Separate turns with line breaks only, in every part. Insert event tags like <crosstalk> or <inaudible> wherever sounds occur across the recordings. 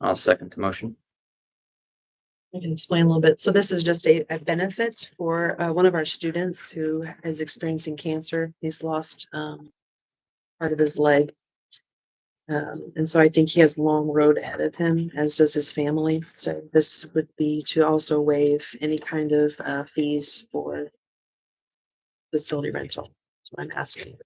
I'll second the motion.
I can explain a little bit. So this is just a, a benefit for, uh, one of our students who is experiencing cancer. He's lost, um, part of his leg. Um, and so I think he has a long road ahead of him, as does his family. So this would be to also waive any kind of, uh, fees for facility rental. So I'm asking.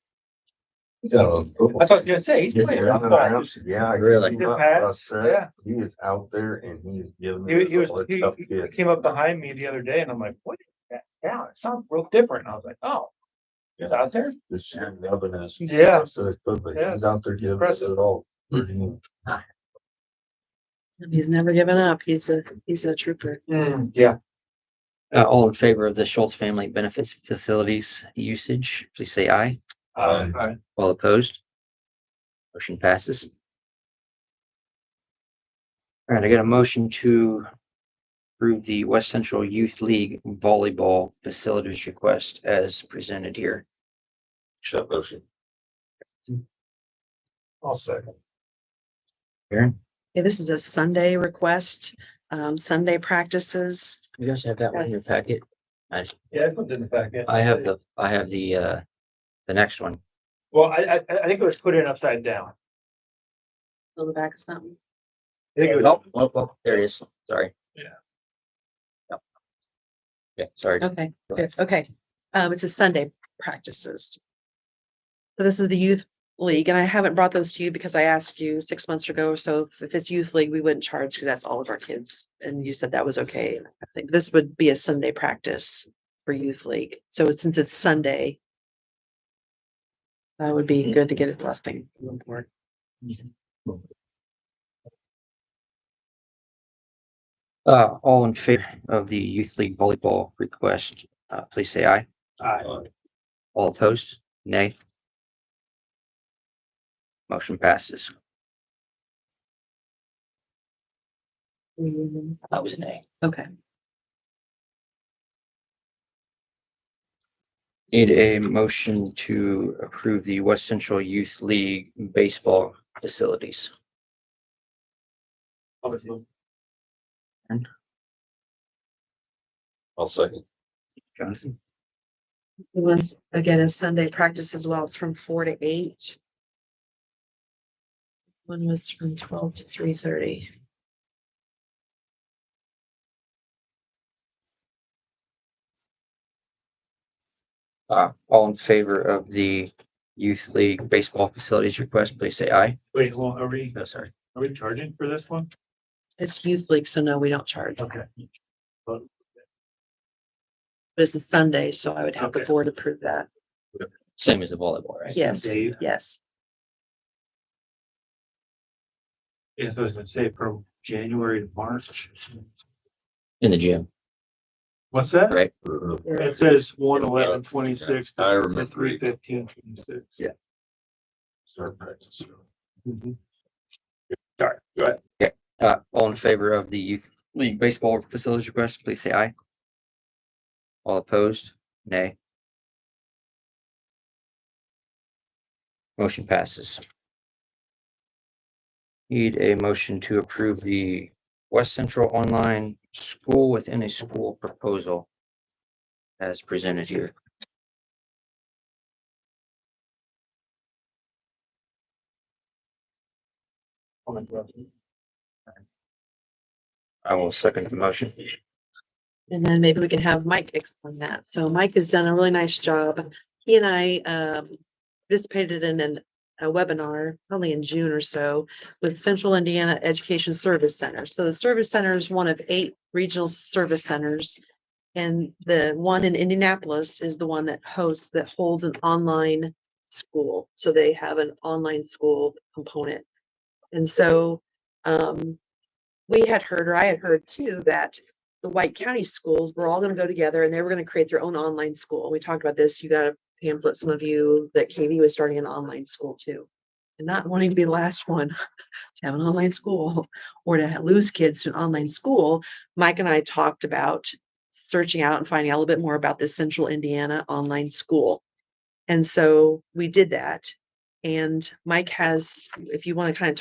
So.
That's what I was gonna say. He's
Yeah,
playing. around.
I-
Really?
he was
Pat,
out there.
yeah.
He is out there and he is giving.
He, he
us
was,
all
he,
his tough
he- he
kids.
came up behind me the other day and I'm like, what is that town? It sounds real different. And I was like, oh. It's out there?
This shit loving us.
Yeah.
So it's good, but
Yeah.
he's out there giving us
Impressive.
it all.
He's never given up. He's a, he's a trooper.
yeah.
Uh, all in favor of the Schultz Family Benefits Facilities usage, please say aye.
Aye.
Alright.
All opposed? Motion passes. All right, I got a motion to approve the West Central Youth League volleyball facilities request as presented here.
Shut motion.
I'll second.
Okay, this is a Sunday request, um, Sunday practices.
You guys have that one in your packet?
Yeah, I put it in the packet.
I have the, I have the, uh, the next one.
Well, I, I, I think it was put in upside down.
On the back of something.
I think it was,
Nope, nope, nope, Oh, there it is, sorry.
Yeah.
Yep. Yeah, sorry.
Okay,
Go
good, okay. Um, it's a Sunday practices. So this is the youth league and I haven't brought those to you because I asked you six months ago or so if- if it's youth league, we wouldn't charge because that's all of our kids. And you said that was okay. And I think this would be a Sunday practice for youth league. So it's- since it's Sunday, that would be good to get it left thing.
Uh, all in favor of the youth league volleyball request, uh, please say aye.
aye.
All opposed? Nay. Motion passes. That was a nay.
Mm-hmm. Okay,
Need a motion to approve the West Central Youth League baseball facilities.
Obviously.
I'll second.
Jonathan?
The one's again, is Sunday practice as well. It's from four to eight. One was from twelve to three thirty.
Uh, all in favor of the youth league baseball facilities request, please say aye.
Wait, hold on, are we,
No, sorry.
are we charging for this one?
It's youth league, so no, we don't charge. But
Okay.
it's a Sunday, so I would have the
Okay.
board approve that.
Same as the volleyball, right?
Yes,
Dave,
yes.
yeah, so I was gonna say from January to March.
In the gym.
What's that?
Right.
It says one eleven twenty-six
I
to
remember.
three fifteen twenty-six.
Yeah.
Start practice.
Sorry, go ahead.
Uh, all in favor of the youth league baseball facilities request, please say aye. All opposed, nay. Motion passes. Need a motion to approve the West Central Online School Within a School proposal as presented here.
Comment, Russell.
I will second the motion.
And then maybe we can have Mike explain that. So Mike has done a really nice job. He and I um, participated in an- a webinar probably in June or so with Central Indiana Education Service Center. So the service center is one of eight regional service centers. And the one in Indianapolis is the one that hosts, that holds an online school. So they have an online school component. And so um, we had heard, or I had heard too, that the White County schools were all gonna go together and they were gonna create their own online school. We talked about this, you got a pamphlet, some of you, that KV was starting an online school too. And not wanting to be the last one <laughs> to have an online school or to ha- lose kids to an online school, Mike and I talked about searching out and finding out a little bit more about this Central Indiana online school. And so we did that. And Mike has, if you wanna kind of